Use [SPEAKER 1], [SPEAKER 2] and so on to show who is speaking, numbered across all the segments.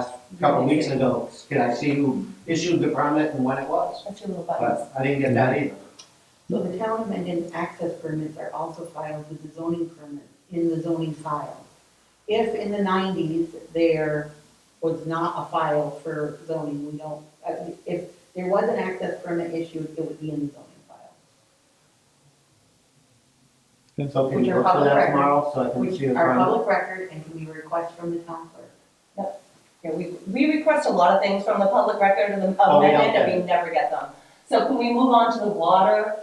[SPEAKER 1] a couple weeks ago, can I see who issued the permit and when it was?
[SPEAKER 2] That's your little buttons.
[SPEAKER 1] But I didn't get that either.
[SPEAKER 2] So the town amended access permits are also filed with the zoning permit, in the zoning file. If in the nineties there was not a file for zoning, we don't, uh, if there was an access permit issued, it would be in the zoning file,
[SPEAKER 1] So can
[SPEAKER 2] Which
[SPEAKER 1] you
[SPEAKER 2] are
[SPEAKER 1] look for
[SPEAKER 2] public
[SPEAKER 1] that
[SPEAKER 2] record.
[SPEAKER 1] tomorrow so I can
[SPEAKER 2] which
[SPEAKER 1] see the
[SPEAKER 2] are
[SPEAKER 1] permit?
[SPEAKER 2] public record and can be requested from the town clerk.
[SPEAKER 3] Yeah, we, we request a lot of things from the public record and the
[SPEAKER 1] Oh, we don't
[SPEAKER 3] amendment,
[SPEAKER 1] get
[SPEAKER 3] and we never get them. So can we move on to the water,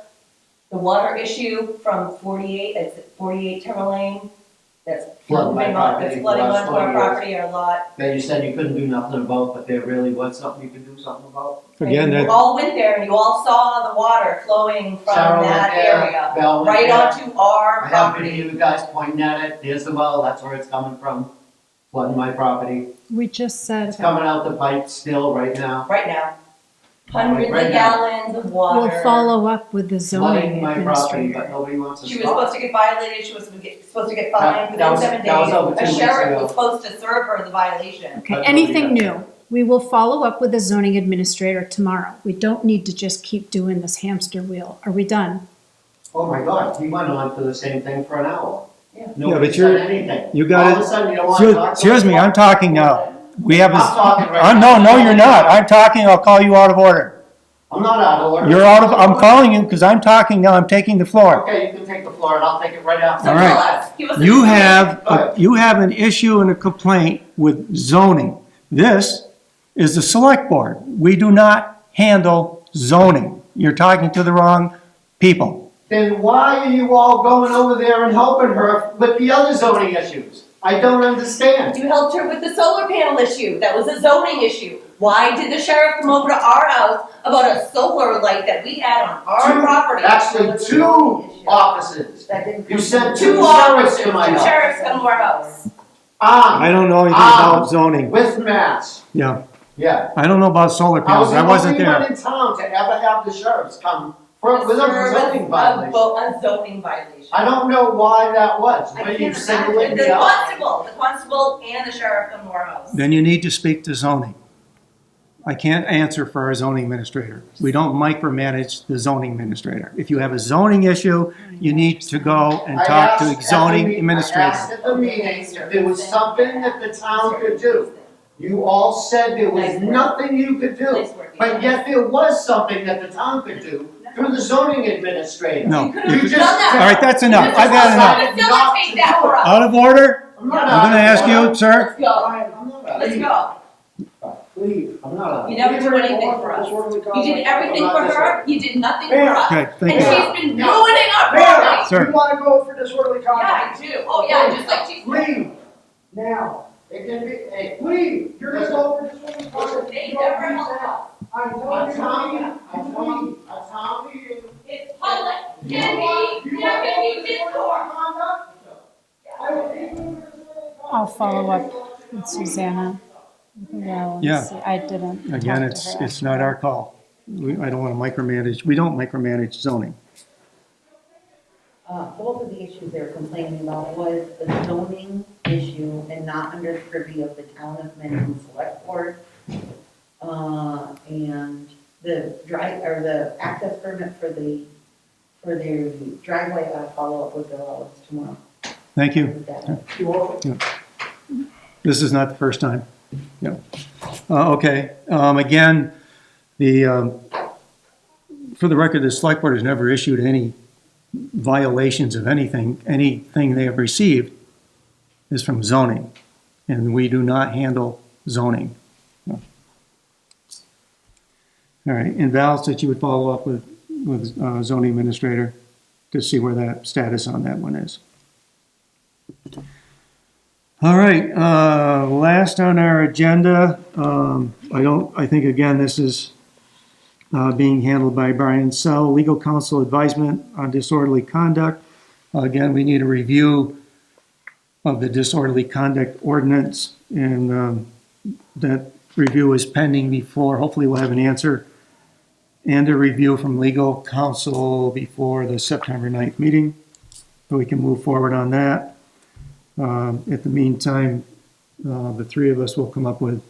[SPEAKER 3] the water issue from forty-eight, it's forty-eight Timber Lane? That's
[SPEAKER 1] Flooded my
[SPEAKER 3] flooding on,
[SPEAKER 1] property
[SPEAKER 3] that's flooding
[SPEAKER 1] for the last
[SPEAKER 3] onto our
[SPEAKER 1] 20 years.
[SPEAKER 3] property or lot.
[SPEAKER 1] That you said you couldn't do nothing about, but there really was something you could do something about?
[SPEAKER 4] Again,
[SPEAKER 3] And you
[SPEAKER 4] that,
[SPEAKER 3] all went there and you all saw the water flowing
[SPEAKER 1] Sarah
[SPEAKER 3] from
[SPEAKER 1] went
[SPEAKER 3] that
[SPEAKER 1] there,
[SPEAKER 3] area,
[SPEAKER 1] Bell went
[SPEAKER 3] Uh, right
[SPEAKER 1] there.
[SPEAKER 3] onto our
[SPEAKER 1] I happened to
[SPEAKER 3] property.
[SPEAKER 1] you guys pointing at it, there's the well, that's where it's coming from, flooding my property.
[SPEAKER 5] We just said,
[SPEAKER 1] It's coming out the pipe still right now,
[SPEAKER 3] Right now. Hundreds
[SPEAKER 1] Right
[SPEAKER 3] of
[SPEAKER 1] now.
[SPEAKER 3] gallons of
[SPEAKER 5] we'll
[SPEAKER 3] water.
[SPEAKER 5] follow up with the
[SPEAKER 1] flooding
[SPEAKER 5] zoning
[SPEAKER 1] my property, but
[SPEAKER 5] administrator.
[SPEAKER 1] nobody wants to
[SPEAKER 3] She was supposed
[SPEAKER 1] stop.
[SPEAKER 3] to get violated, she was supposed to get- supposed to get
[SPEAKER 1] That-
[SPEAKER 3] fined
[SPEAKER 1] that
[SPEAKER 3] within
[SPEAKER 1] was-
[SPEAKER 3] seven days.
[SPEAKER 1] that was over two
[SPEAKER 3] A
[SPEAKER 1] weeks
[SPEAKER 3] sheriff
[SPEAKER 1] ago.
[SPEAKER 3] was supposed to serve her the violation.
[SPEAKER 5] Okay,
[SPEAKER 1] That's what we
[SPEAKER 5] anything
[SPEAKER 1] got.
[SPEAKER 5] new? We will follow up with the zoning administrator tomorrow. We don't need to just keep doing this hamster wheel. Are we done?
[SPEAKER 1] Oh my God, we went on for the same thing for an hour.
[SPEAKER 3] Yeah.
[SPEAKER 1] Nobody
[SPEAKER 4] but you're-
[SPEAKER 1] said anything.
[SPEAKER 4] you
[SPEAKER 1] All of a
[SPEAKER 4] got
[SPEAKER 1] sudden, you don't want to
[SPEAKER 4] it.
[SPEAKER 1] talk.
[SPEAKER 4] Excuse me, I'm talking now. We have a,
[SPEAKER 1] I'm talking right
[SPEAKER 4] I'm, no,
[SPEAKER 1] now.
[SPEAKER 4] no, you're not. I'm talking, I'll call you out of order.
[SPEAKER 1] I'm not out of order.
[SPEAKER 4] You're out of, I'm calling you because I'm talking now, I'm taking the floor.
[SPEAKER 1] Okay, you can take the floor and I'll take it right
[SPEAKER 3] So
[SPEAKER 1] after.
[SPEAKER 4] All
[SPEAKER 3] tell
[SPEAKER 4] right.
[SPEAKER 3] us, he was-
[SPEAKER 4] You have, a- you have an issue and a complaint with zoning. This is the select board. We do not handle zoning. You're talking to the wrong people.
[SPEAKER 1] Then why are you all going over there and helping her with the other zoning issues? I don't understand.
[SPEAKER 3] You helped her with the solar panel issue, that was a zoning issue. Why did the sheriff come over to our house about a solar light that we had on our
[SPEAKER 1] Two-
[SPEAKER 3] property?
[SPEAKER 1] Actually, two offices.
[SPEAKER 2] That didn't.
[SPEAKER 1] You
[SPEAKER 2] come
[SPEAKER 1] sent
[SPEAKER 2] from-
[SPEAKER 3] Two
[SPEAKER 1] Two sheriffs
[SPEAKER 3] officers,
[SPEAKER 1] to my
[SPEAKER 3] two
[SPEAKER 1] house.
[SPEAKER 3] sheriffs come to our house.
[SPEAKER 1] Ah,
[SPEAKER 4] I don't know anything
[SPEAKER 1] Ah.
[SPEAKER 4] about zoning.
[SPEAKER 1] with masks,
[SPEAKER 4] Yeah,
[SPEAKER 1] yeah.
[SPEAKER 4] I don't know about solar
[SPEAKER 1] I was
[SPEAKER 4] panels.
[SPEAKER 1] the
[SPEAKER 4] I wasn't
[SPEAKER 1] only one
[SPEAKER 4] there.
[SPEAKER 1] in town to ever have the sheriffs come for, with a
[SPEAKER 3] Serve
[SPEAKER 1] zoning
[SPEAKER 3] a
[SPEAKER 1] violation.
[SPEAKER 3] bo- A zoning violation.
[SPEAKER 1] I don't know why that was,
[SPEAKER 2] I
[SPEAKER 1] but
[SPEAKER 2] can't
[SPEAKER 1] you singling
[SPEAKER 2] imagine.
[SPEAKER 3] The
[SPEAKER 1] me out.
[SPEAKER 3] constable, the constable and the sheriff come to our house.
[SPEAKER 4] Then you need to speak to zoning. I can't answer for our zoning administrator. We don't micromanage the zoning administrator. If you have a zoning issue, you need to go and
[SPEAKER 1] I
[SPEAKER 4] talk
[SPEAKER 1] asked at
[SPEAKER 4] to
[SPEAKER 1] the meet- I
[SPEAKER 4] zoning
[SPEAKER 1] asked
[SPEAKER 4] administrator.
[SPEAKER 1] at the meeting if there was something that the town could do. You all said there was
[SPEAKER 3] Nice work.
[SPEAKER 1] nothing you could do.
[SPEAKER 3] Police work,
[SPEAKER 1] But
[SPEAKER 3] yeah.
[SPEAKER 1] yet there was something that the town could do through the zoning administrator.
[SPEAKER 4] No.
[SPEAKER 3] You could've
[SPEAKER 1] You
[SPEAKER 3] done
[SPEAKER 1] just-
[SPEAKER 3] that.
[SPEAKER 4] All right, that's enough. I've had enough.
[SPEAKER 3] Facilitate that for us.
[SPEAKER 4] Out of order?
[SPEAKER 1] I'm not
[SPEAKER 4] I'm
[SPEAKER 1] out
[SPEAKER 4] gonna
[SPEAKER 1] of
[SPEAKER 4] ask
[SPEAKER 1] order.
[SPEAKER 4] you, sir.
[SPEAKER 3] Let's go,
[SPEAKER 1] Fine, I'm not out of
[SPEAKER 3] let's
[SPEAKER 1] order.
[SPEAKER 3] go.
[SPEAKER 1] Please, I'm not out of
[SPEAKER 3] You
[SPEAKER 1] order.
[SPEAKER 3] never do anything for us. You did everything for her, you did nothing for us.
[SPEAKER 4] Okay,
[SPEAKER 3] And
[SPEAKER 4] thank you.
[SPEAKER 3] she's been ruining our property.
[SPEAKER 4] Sir.
[SPEAKER 6] You wanna go for disorderly
[SPEAKER 3] Yeah, I
[SPEAKER 6] conduct?
[SPEAKER 3] do. Oh, yeah, just like she's.
[SPEAKER 1] Leave, now. It can be, hey,
[SPEAKER 6] Leave, you're gonna go for disorderly conduct.
[SPEAKER 3] They
[SPEAKER 6] You don't
[SPEAKER 3] never
[SPEAKER 6] do
[SPEAKER 3] help
[SPEAKER 6] that.
[SPEAKER 3] out.
[SPEAKER 6] I know
[SPEAKER 1] I'm
[SPEAKER 6] you're
[SPEAKER 1] telling you,
[SPEAKER 6] not.
[SPEAKER 1] I'm telling you, I'm telling you.
[SPEAKER 3] It's public,
[SPEAKER 6] You
[SPEAKER 3] can
[SPEAKER 6] want-
[SPEAKER 3] be,
[SPEAKER 6] you
[SPEAKER 3] there
[SPEAKER 6] wanna go
[SPEAKER 3] can
[SPEAKER 6] for
[SPEAKER 3] be
[SPEAKER 6] disorderly
[SPEAKER 3] discord.
[SPEAKER 6] conduct? I will leave you for disorderly conduct.
[SPEAKER 5] I'll follow up with Susanna. Well, and
[SPEAKER 4] Yeah.
[SPEAKER 5] see. I didn't. talk
[SPEAKER 4] Again,
[SPEAKER 5] to
[SPEAKER 4] it's,
[SPEAKER 5] her
[SPEAKER 4] it's
[SPEAKER 5] after
[SPEAKER 4] not
[SPEAKER 5] that.
[SPEAKER 4] our call. We, I don't wanna micromanage, we don't micromanage zoning.
[SPEAKER 2] Uh, both of the issues they're complaining about was the zoning issue and not under the purview of the town of Mendon Select Board. Uh, and the drive, or the access permit for the, for the driveway, I'll follow up with Bill Ellis tomorrow.
[SPEAKER 4] Thank you.
[SPEAKER 2] with that.
[SPEAKER 4] This is not the first time. Yeah. Uh, okay, um, again, the, um, for the record, the select board has never issued any violations of anything. Anything they have received is from zoning, and we do not handle zoning. All right, and Val said you would follow up with, with uh, zoning administrator to see where that status on that one is. All right, uh, last on our agenda, um, I don't, I think again, this is uh, being handled by Brian Sell, legal counsel advisement on disorderly conduct. Again, we need a review of the disorderly conduct ordinance and um, that review is pending before, hopefully we'll have an answer and a review from legal counsel before the September 9th meeting, so we can move forward on that. Um, At the meantime, uh, the three of us will come up with